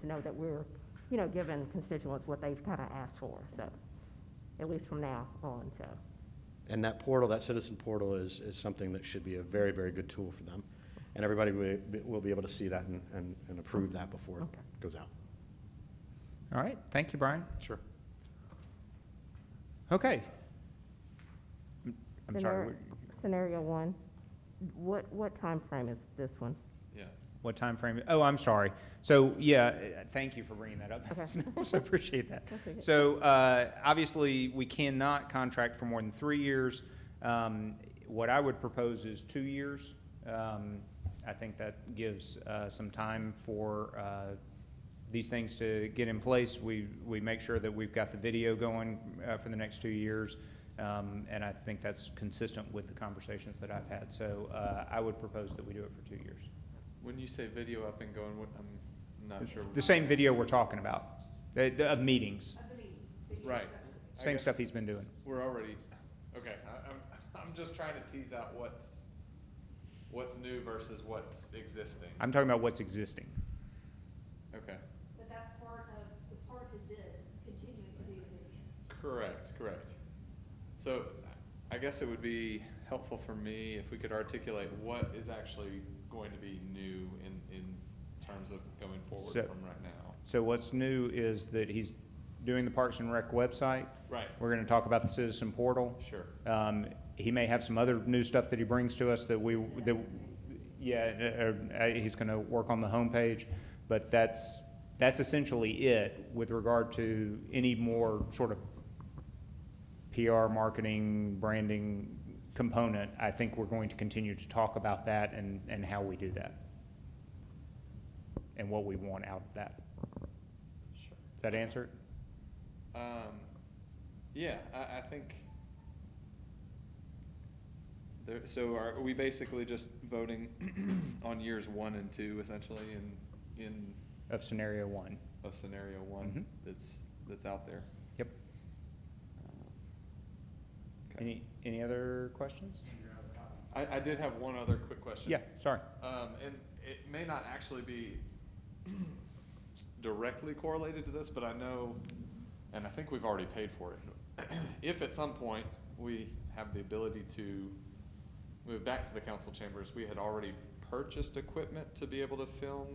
to know that we're, you know, giving constituents what they've kind of asked for, so, at least from now on, so. And that portal, that citizen portal is, is something that should be a very, very good tool for them. And everybody will, be- will be able to see that and, and, and approve that before Okay. it goes out. All right, thank you, Brian. Sure. Okay. I'm sorry, Scenario- Scenario one, what, what time frame is this one? Yeah. what time frame? Oh, I'm sorry. So, yeah, uh, thank you for bringing that up. Okay. I also appreciate that. That's okay. So, uh, obviously, we cannot contract for more than three years. Um, What I would propose is two years. Um, I think that gives uh, some time for uh, these things to get in place. We, we make sure that we've got the video going uh, for the next two years. Um, And I think that's consistent with the conversations that I've had. So uh, I would propose that we do it for two years. When you say video up and going, what, I'm not sure. The same video we're talking about, uh, the- of meetings, Right. I same guess stuff he's been doing. We're already, okay, I, I'm, I'm just trying to tease out what's, what's new versus what's existing. I'm talking about what's existing. Okay, But that's part of, the part is this, continuing to be the vision. correct, correct. So I guess it would be helpful for me if we could articulate what is actually going to be new in, in terms of going forward So- from right now. So what's new is that he's doing the Parks and Rec website. Right, We're going to talk about the citizen portal. sure. Um, He may have some other new stuff that he brings to us that we, that, yeah, uh, uh, he's going to work on the homepage, but that's, that's essentially it with regard to any more sort of PR, marketing, branding component. I think we're going to continue to talk about that and, and how we do that, and what we want out of that. Sure. Does that answer it? Um, yeah, I, I think. There, so are we basically just voting on years one and two essentially in, in, Of scenario one? of scenario one Mhm. that's, that's out there? Yep. Any, any other questions? I, I did have one other quick question. Yeah, sorry. Um, and it may not actually be directly correlated to this, but I know, and I think we've already paid for it. If at some point we have the ability to move back to the council chambers, we had already purchased equipment to be able to film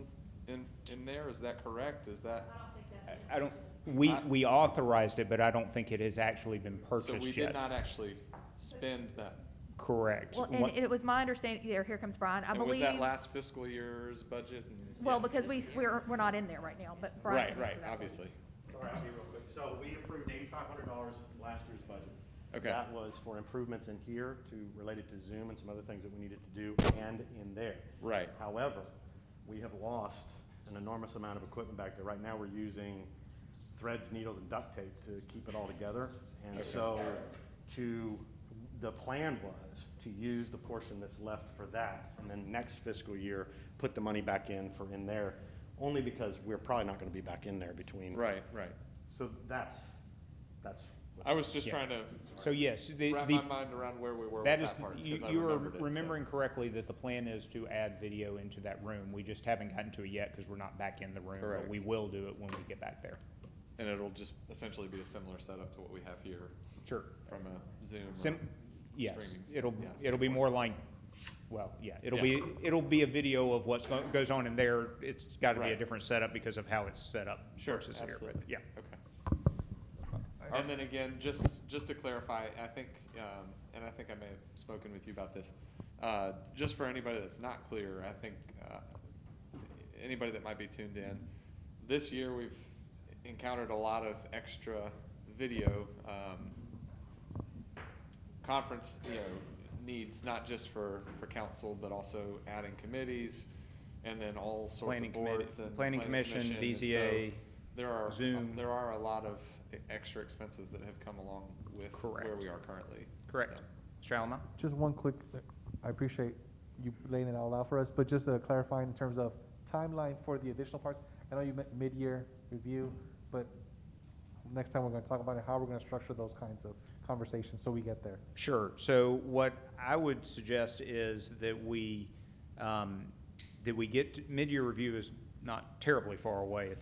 in, in there, is that correct? Is that? I don't think that's. I- what I don't, it is. we, I- we authorized it, but I don't think it has actually been So we purchased did yet. not actually spend that. Correct. Well, and One- it was my understanding, there, here comes Brian, I And was believe, that last fiscal year's budget? and- well, because we, we're, we're not in there right now, but Brian Right, can right, answer that one. obviously. All right, I'll be real quick. So we approved eighty-five hundred dollars last year's budget. Okay. That was for improvements in here to, related to Zoom and some other things that we needed to do and in there. Right. However, we have lost an enormous amount of equipment back there. Right now, we're using threads, needles, and duct tape to keep it all together. And so to, the plan was to use the portion that's left for that, and then next fiscal year, put the money back in for in there, only because we're probably not gonna be back in there between. Right, right. So that's, that's. I was just Yeah. trying to So yes, the, wrap the, my mind around where we were that with is, that part. 'cause you, I you are remembered it, so- remembering correctly that the plan is to add video into that room. We just haven't gotten to it yet because we're not back in the room, but Correct. we will do it when we get back there. And it'll just essentially be a similar setup to what we have here Sure. from a Zoom. or- Sim, yes, Streaming, it'll, yeah, it'll be more like, well, yeah, it'll Yeah. be, it'll be a video of what's go- goes on in there. It's gotta be a Right. different setup because of how it's set up Sure, versus here, but absolutely. yeah. Uh, Okay. And then again, just, just to clarify, I think, um, and I think I may have spoken with you about this, uh, just for anybody that's not clear, I think, uh, anybody that might be tuned in, this year we've encountered a lot of extra video, um, conference, you know, needs, not just for, for council, but also adding committees, and then all sorts Planning of committee- boards and. planning commission, and so BZA, There are, Zoom. there are a lot of e- extra expenses that have come along with where Correct. we are currently. Correct. so. Mr. Alamo? Just one quick, I appreciate you laying it all out for us, but just uh, clarifying in terms of timeline for the additional parts. I know you meant mid-year review, but next time we're gonna talk about it, how we're gonna structure those kinds of conversations so we get there. Sure. So what I would suggest is that we, um, that we get, to- mid-year review is not terribly far away at this